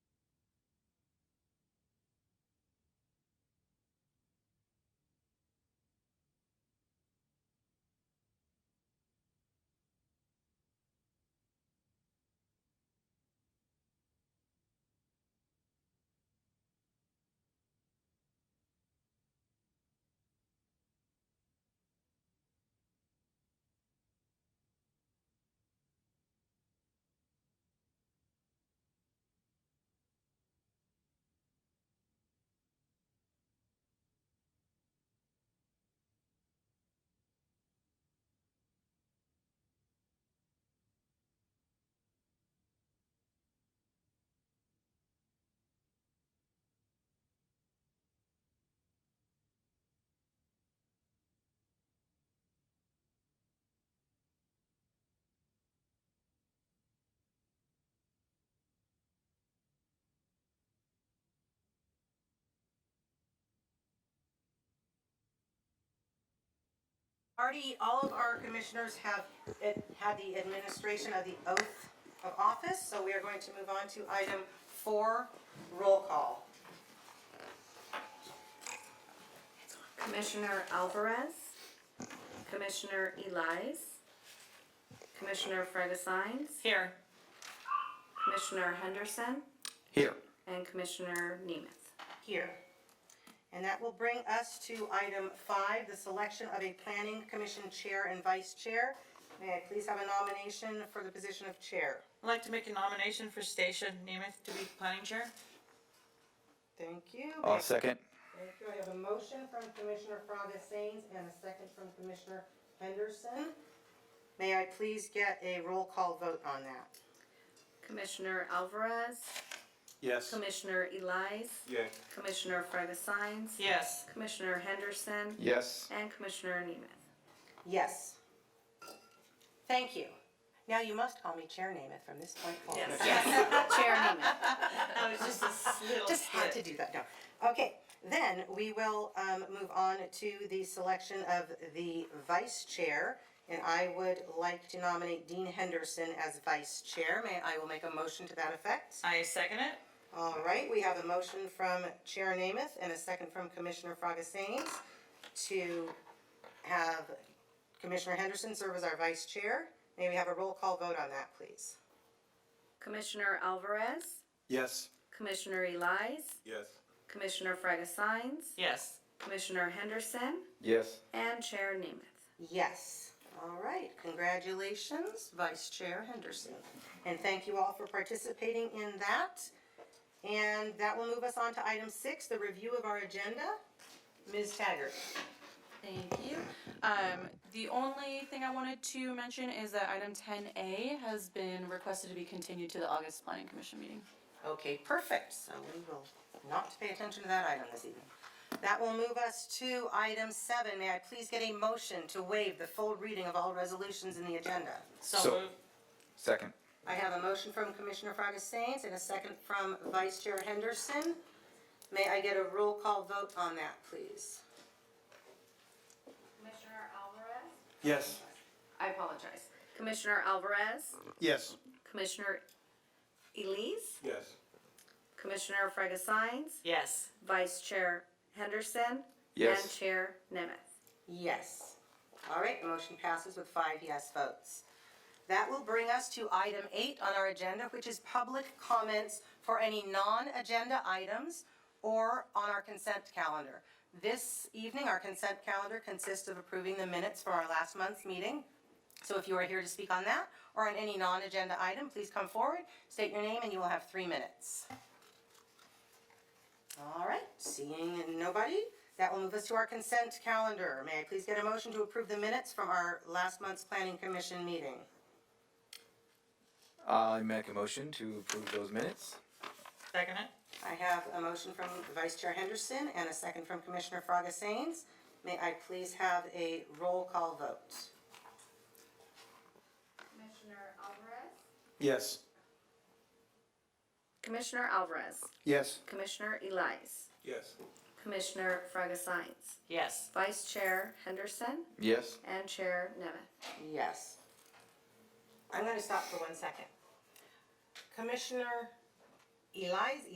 already, all of our commissioners have ad- had the administration of the oath of office, so we are going to move on to item four, roll call. Commissioner Alvarez, Commissioner Eliz, Commissioner Fragasines, Here. Commissioner Henderson, Here. and Commissioner Nemeth. here. And that will bring us to item five, the selection of a planning commission chair and vice chair. May I please have a nomination for the position of chair? I'd like to make a nomination for Stacia Nemeth to be planning chair. Thank you. I'll second. Thank you. I have a motion from Commissioner Fraga Sains and a second from Commissioner Henderson. May I please get a roll call vote on that? Commissioner Alvarez, Yes. Commissioner Eliz, Yeah. Commissioner Fragasines, Yes. Commissioner Henderson, Yes. and Commissioner Nemeth. Yes. Thank you. Now you must call me Chair Namath from this point forward. Chair Nemeth. That was just a little Just had to slip. do that, no. Okay, then we will um, move on to the selection of the vice chair. And I would like to nominate Dean Henderson as vice chair. May, I will make a motion to that effect. I second it. All right, we have a motion from Chair Namath and a second from Commissioner Frogasanes to have Commissioner Henderson serve as our vice chair. May we have a roll call vote on that, please? Commissioner Alvarez, Yes. Commissioner Eliz, Yes. Commissioner Fragasines, Yes. Commissioner Henderson, Yes. and Chair Nemeth. Yes. All right, congratulations, Vice Chair Henderson. And thank you all for participating in that. And that will move us on to item six, the review of our agenda. Ms. Taggart. Thank you. Um, the only thing I wanted to mention is that item ten A has been requested to be continued to the August planning commission meeting. Okay, perfect. So we will not pay attention to that item this evening. That will move us to item seven. May I please get a motion to waive the full reading of all resolutions in the agenda? So So- moved. Second. I have a motion from Commissioner Frogasains and a second from Vice Chair Henderson. May I get a roll call vote on that, please? Commissioner Alvarez? Yes. I apologize. Commissioner Alvarez, Yes. Commissioner Eliz, Yes. Commissioner Fragasines, Yes. Vice Chair Henderson, and Yes. Chair Nemeth. Yes. All right, the motion passes with five yes votes. That will bring us to item eight on our agenda, which is public comments for any non-agenda items or on our consent calendar. This evening, our consent calendar consists of approving the minutes for our last month's meeting. So if you are here to speak on that or on any non-agenda item, please come forward, state your name, and you will have three minutes. All right, seeing nobody, that will move us to our consent calendar. May I please get a motion to approve the minutes from our last month's planning commission meeting? I make a motion to approve those minutes. Second it. I have a motion from Vice Chair Henderson and a second from Commissioner Fraga Sains. May I please have a roll call vote? Commissioner Alvarez? Yes. Commissioner Alvarez, Yes. Commissioner Eliz, Yes. Commissioner Fragasines, Yes. Vice Chair Henderson, Yes. and Chair Nemeth. Yes. I'm gonna stop for one second. Commissioner Eliz,